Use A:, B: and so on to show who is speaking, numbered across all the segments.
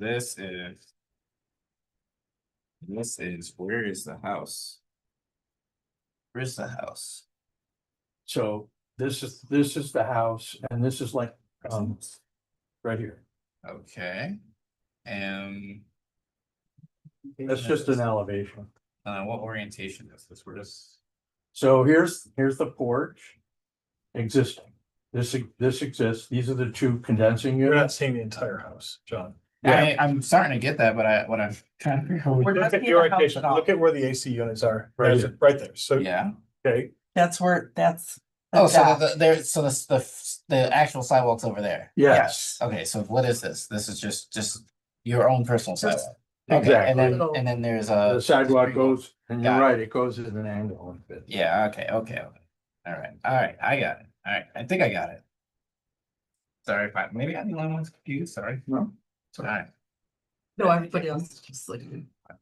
A: This is. This is, where is the house? Where's the house?
B: So this is, this is the house and this is like, um, right here.
A: Okay, and.
B: That's just an elevation.
A: Uh, what orientation is this? We're just,
B: So here's, here's the porch. Existing. This, e, this exists. These are the two condensing
C: You're
B: units.
C: not seeing the entire house, John.
A: I, I'm starting to get that, but I, what I'm trying to figure out.
D: We're not
C: Look at
D: seeing
C: the
D: the house
C: orientation,
D: at all.
C: look at where the AC units are,
B: Right
C: right,
B: here.
C: right there, so,
A: Yeah,
C: okay,
D: That's where, that's. the
A: oh, so
D: dock.
A: the, there, so the, the, the actual sidewalk's over there.
B: Yes,
A: Okay, so what is this? This is just, just your own personal sidewalk. Okay, and
B: exactly.
A: then, and then there's
B: The
A: a.
B: sidewalk goes, and you're
A: Got it.
B: right, it goes at an angle. and fits.
A: Yeah, okay, okay, okay. All right, all right, I got it. All right, I think I got it. Sorry if I, maybe I'm the only one confused, sorry.
B: No.
A: All right,
D: No, everybody else is just like.
A: all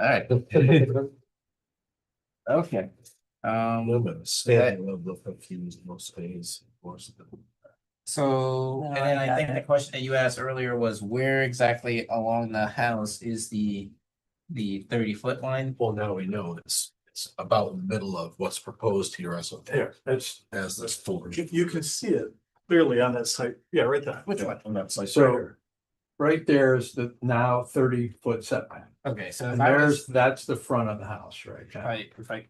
A: right,
C: A
A: okay.
C: little
A: Um,
C: bit of standing, a little bit of confused, most days. most of them.
A: so,
D: No,
A: and
D: I
A: then I
D: got
A: think the
D: it.
A: question that you asked earlier was where exactly along the house is the, the thirty foot line?
E: Well, now we know it's, it's about the middle of what's proposed here as of
B: There, that's,
E: as this four.
C: You, you can see it clearly on that site, yeah, right there.
A: Which one?
C: On that site.
B: So-
C: right here.
B: right there is the now thirty foot setback.
A: Okay, so if
B: And
A: I
B: there's,
A: was,
B: that's the front of the house, right?
A: if
B: John?
A: I, if I,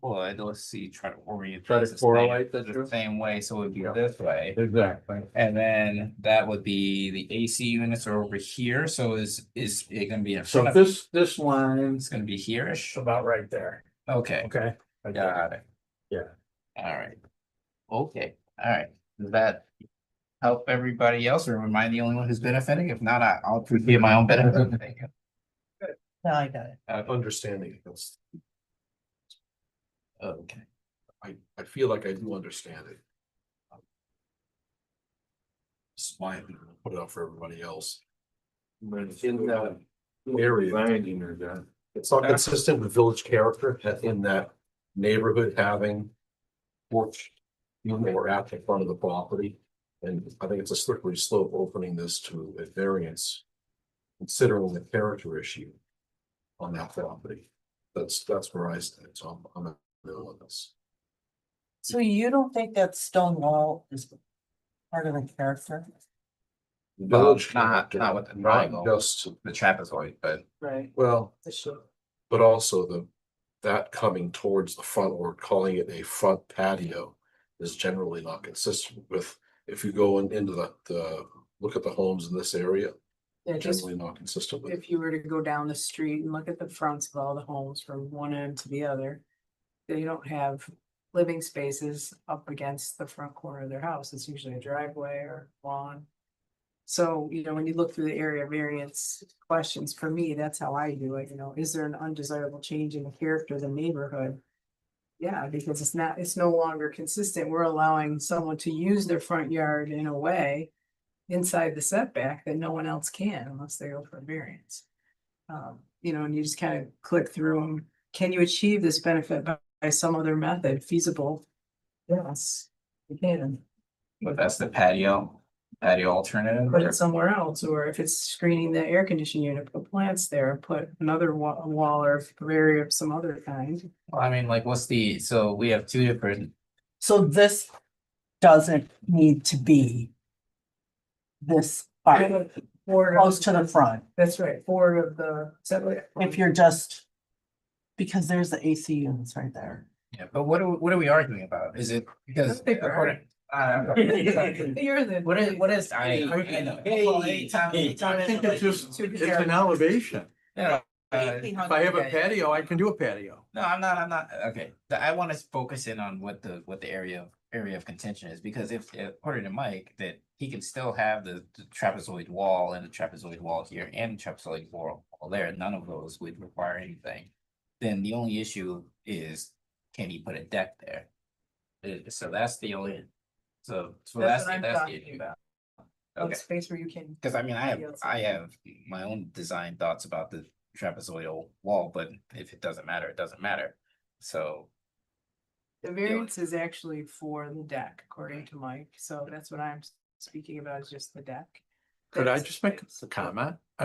A: well, I'd let's see, try to orient.
B: Try to
A: this the same-
B: correlate the two?
A: The same way, so it would be
B: Yeah.
A: this way.
B: Exactly.
A: And then that would be the AC units are over here, so is, is it gonna be in
B: So
A: front of,
B: this, this line's
A: it's gonna be here-ish?
B: about right there,
A: Okay,
B: okay?
A: got it.
B: Yeah.
A: Alright. Okay, alright, does that help everybody else, or am I the only one who's benefiting? If not, I- I'll appreciate my own benefit. Thank you.
D: No, I got it.
E: Understanding this,
A: Okay,
E: I, I feel like I do understand it. It's my, opinion. I'll put it out for everybody else. in that area, it's not consistent with village character that in that neighborhood having porch unit or at the front of the property. And I think it's a slippery slope opening this to a variance, considering the character issue on that property. That's, that's where I stand, so I'm, I'm in the middle of this.
D: So you don't think that stone wall is part of the character?
A: Village not- not with the
E: Not
A: triangle.
E: Just,
A: the trapezoid, but
D: Right.
E: well,
D: The shape.
E: but also the, that coming towards the front or calling it a front patio is generally not consistent with, if you go in- into the, the, look at the homes in this area,
F: Yeah, just
E: generally not consistent with.
F: if you were to go down the street and look at the fronts of all the homes from one end to the other. They don't have living spaces up against the front corner of their house. It's usually a driveway or lawn. So, you know, when you look through the area variance questions, for me, that's how I do it, you know, is there an undesirable change in the character of the neighborhood? Yeah, because it's not, it's no longer consistent. We're allowing someone to use their front yard in a way inside the setback that no one else can unless they go for a variance. Um, you know, and you just kind of click through them. Can you achieve this benefit by, by some other method feasible? Yes, you can,
A: but that's the patio, patio alternative.
F: put it somewhere else, or if it's screening the air conditioning unit, put plants there, put another wa- wall or barrier of some other kind.
A: Well, I mean, like, what's the, so we have two different,
D: So this doesn't need to be this far,
F: Four,
D: close to the front,
F: that's right, four of the setback.
D: if you're just, because there's the AC units right there.
A: yeah, but what are, we- what are we arguing about? Is it because?
F: I think we're
A: according- Uh,
F: You're the.
A: What is, what is, I, I know. Well, anytime- anytime
B: I think
A: anybody-
B: it's just,
D: Two
B: it's
D: characters.
B: an elevation.
A: Yeah, uh,
B: If I have a patio, I can do a patio.
A: No, I'm not, I'm not, okay, The- I wanna focus in on what the, what the area, of- area of contention is, because if, if- according to Mike, that he can still have the the trapezoid wall and the trapezoid wall here and trapezoid wall wall there, none of those would require anything. Then the only issue is, can he put a deck there? Uh, So that's the only, so, so that's,
F: That's what I'm
A: that's the
F: talking
A: issue.
F: about.
A: Okay.
F: Space where you can
A: Cause I mean, I have,
F: Yes.
A: I have my own design thoughts about the trapezoidal wall, but if it doesn't matter, it doesn't matter. So,
F: The variance is actually for the deck, according to Mike, so that's what I'm s- speaking about, is just the deck.
B: Could I
F: That's-
B: just make a comment?